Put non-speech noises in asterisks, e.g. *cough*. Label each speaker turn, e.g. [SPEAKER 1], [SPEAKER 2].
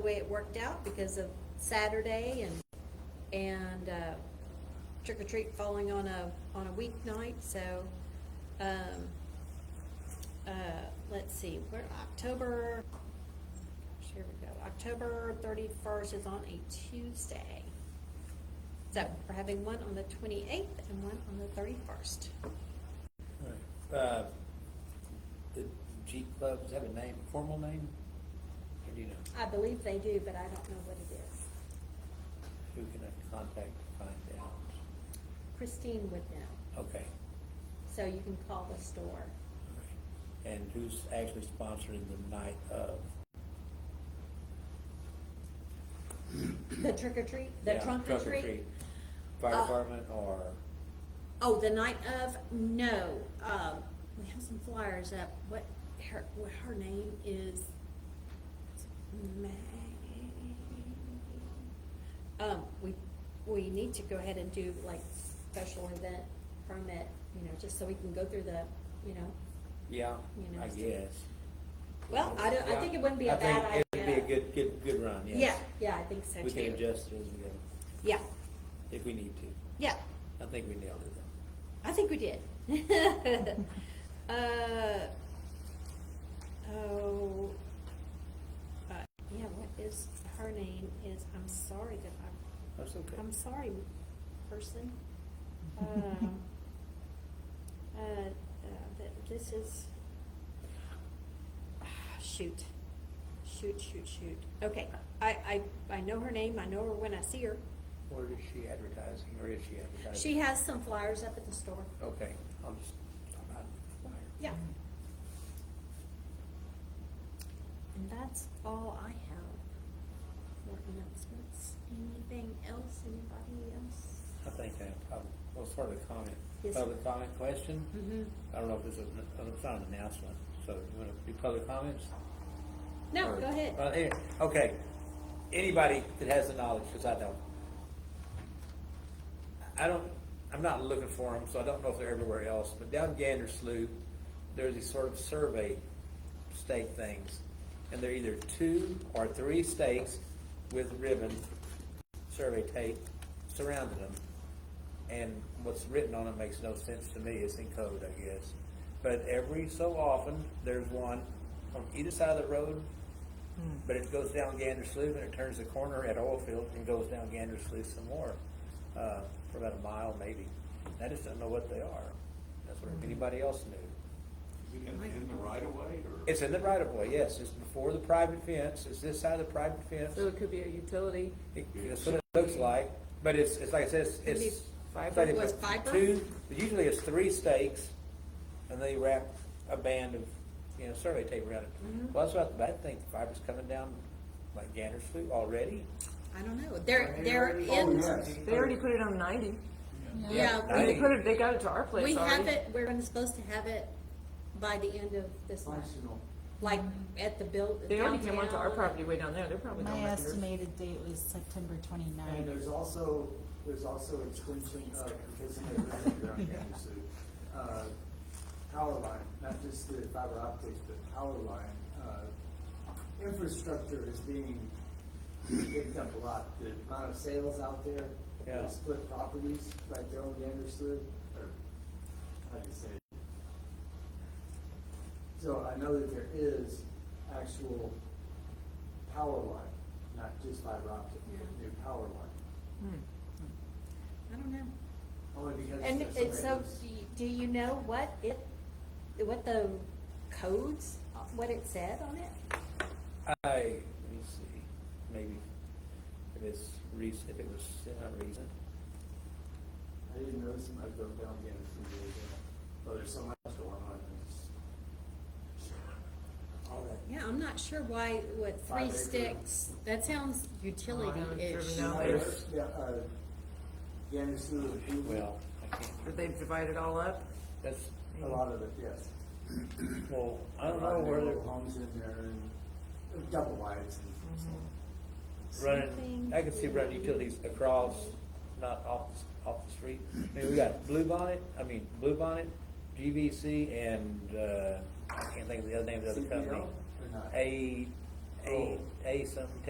[SPEAKER 1] way it worked out because of Saturday and, and, uh, trick or treat falling on a, on a weeknight, so, um, uh, let's see, we're October, here we go, October thirty-first is on a Tuesday. So, we're having one on the twenty-eighth and one on the thirty-first.
[SPEAKER 2] Uh, The Jeep Club, does that have a name, formal name? Or do you know,
[SPEAKER 1] I believe they do, but I don't know what it is.
[SPEAKER 2] who can I contact to find out?
[SPEAKER 1] Christine would know,
[SPEAKER 2] Okay.
[SPEAKER 1] so you can call the store.
[SPEAKER 2] all right. And who's actually sponsoring the night of?
[SPEAKER 1] The trick or treat, the
[SPEAKER 2] Yeah,
[SPEAKER 1] trunk or treat?
[SPEAKER 2] Fire
[SPEAKER 1] Uh,
[SPEAKER 2] department or,
[SPEAKER 1] Oh, the night of, no, um, we have some flyers up, what, her, what her name is, May. Um, we, we need to go ahead and do like special event permit, you know, just so we can go through the, you know,
[SPEAKER 2] yeah,
[SPEAKER 1] You know,
[SPEAKER 2] I
[SPEAKER 1] so-
[SPEAKER 2] guess.
[SPEAKER 1] well, I don't, I
[SPEAKER 2] Yeah,
[SPEAKER 1] think it wouldn't be a
[SPEAKER 2] I think
[SPEAKER 1] bad idea.
[SPEAKER 2] It'd be a good, good, good run, yes.
[SPEAKER 1] Yeah, yeah, I think so too.
[SPEAKER 2] We can adjust it as we go,
[SPEAKER 1] Yeah,
[SPEAKER 2] if we need to.
[SPEAKER 1] yeah,
[SPEAKER 2] I think we nailed it though.
[SPEAKER 1] I think we did. *laughs* Uh, oh, uh, yeah, what is, her name is, I'm sorry that I'm,
[SPEAKER 2] That's okay.
[SPEAKER 1] I'm sorry, person. Um, uh, uh, th- this is, shoot, shoot, shoot, shoot. Okay, I, I, I know her name, I know her when I see her.
[SPEAKER 2] Where is she advertising, or is she advertising?
[SPEAKER 1] She has some flyers up at the store.
[SPEAKER 2] Okay, I'll just, I'm out of fire.
[SPEAKER 1] Yeah. And that's all I have for announcements. Anything else, anybody else?
[SPEAKER 2] I think I, I was sort of a comment,
[SPEAKER 1] Yes, sir.
[SPEAKER 2] public comment question?
[SPEAKER 1] Mm-hmm.
[SPEAKER 2] I don't know if it's an, it's not an announcement, so you wanna do public comments?
[SPEAKER 1] No,
[SPEAKER 2] Or-
[SPEAKER 1] go ahead.
[SPEAKER 2] Uh, eh, Okay, anybody that has the knowledge, cause I don't. I don't, I'm not looking for them, so I don't know if they're everywhere else, but down Gander Slough, there's these sort of survey stake things. And they're either two or three stakes with ribbon, survey tape surrounding them. And what's written on it makes no sense to me, it's in code, I guess. But every so often, there's one on either side of the road, but it goes down Gander Slough and it turns the corner at Oilfield and goes down Gander Slough some more, uh, for about a mile maybe. And I just don't know what they are. That's what anybody else knew.
[SPEAKER 3] Is it in, in the right of way or?
[SPEAKER 2] It's in the right of way, yes, it's before the private fence, it's this side of the private fence.
[SPEAKER 4] So it could be a utility.
[SPEAKER 2] It- That's what it looks like, but it's, it's like I said, it's-
[SPEAKER 4] Maybe
[SPEAKER 2] it's.
[SPEAKER 4] fiber?
[SPEAKER 2] but it's
[SPEAKER 1] Was fiber?
[SPEAKER 2] Two, but usually it's three stakes, and they wrap a band of, you know, survey tape around it. Well, that's what, I think fiber's coming down like Gander Slough already.
[SPEAKER 1] I don't know. They're,
[SPEAKER 4] E.
[SPEAKER 1] they're
[SPEAKER 3] Oh,
[SPEAKER 1] in,
[SPEAKER 3] yes.
[SPEAKER 4] They already put it on ninety.
[SPEAKER 1] yeah,
[SPEAKER 2] I
[SPEAKER 4] They
[SPEAKER 2] think-
[SPEAKER 4] put it, they got it to our
[SPEAKER 1] we, we
[SPEAKER 4] place already.
[SPEAKER 1] have it, we're gonna- supposed to have it by the end of this month. Like at the build.
[SPEAKER 4] They already came onto our
[SPEAKER 1] downtown.
[SPEAKER 4] property way down there, they're probably
[SPEAKER 5] My
[SPEAKER 4] not much
[SPEAKER 5] estimated date was September
[SPEAKER 6] And
[SPEAKER 5] 29th.
[SPEAKER 6] there's also, there's also a extension of, because in the original ground game, so, uh, power line, not just the fiber optics, but power line, uh, infrastructure is being picked up a lot. The amount of sales out there,
[SPEAKER 2] Yeah.
[SPEAKER 6] the split properties, like their own Anderson, or, how do you say? it? So I know that there is actual power line, not just fiber optic, but new power line.
[SPEAKER 1] I don't know.
[SPEAKER 6] Only because.
[SPEAKER 1] And
[SPEAKER 6] there's
[SPEAKER 1] it's so,
[SPEAKER 6] radios.
[SPEAKER 1] do you- do you know what it, what the codes, what it said on it?
[SPEAKER 2] I, let me see, maybe if it's recent, if it was not recent.
[SPEAKER 6] I didn't notice them, I drove down the end of the road, but there's so much going on. it's-
[SPEAKER 2] All that.
[SPEAKER 1] Yeah, I'm not sure why, what, three
[SPEAKER 6] Five acre.
[SPEAKER 1] sticks, that sounds utility-ish.
[SPEAKER 4] driven out
[SPEAKER 2] there.
[SPEAKER 6] There's, Yeah, uh, the end of the road,
[SPEAKER 2] Well, I can't,
[SPEAKER 4] But they've divided all up.
[SPEAKER 2] that's,
[SPEAKER 6] a lot of it, yes.
[SPEAKER 2] well, I don't
[SPEAKER 6] A lot
[SPEAKER 2] know
[SPEAKER 6] of
[SPEAKER 2] where
[SPEAKER 6] little
[SPEAKER 2] they're.
[SPEAKER 6] Homes in there and double wides and
[SPEAKER 1] Mm-hmm.
[SPEAKER 6] so on.
[SPEAKER 2] running, I can see running utilities across, not off, the- off the street. I mean, we got Bluebonnet, I mean, Bluebonnet, GVC, and, uh, I can't think of the other name of the other company.
[SPEAKER 6] CPL or not?
[SPEAKER 2] A, A, A something,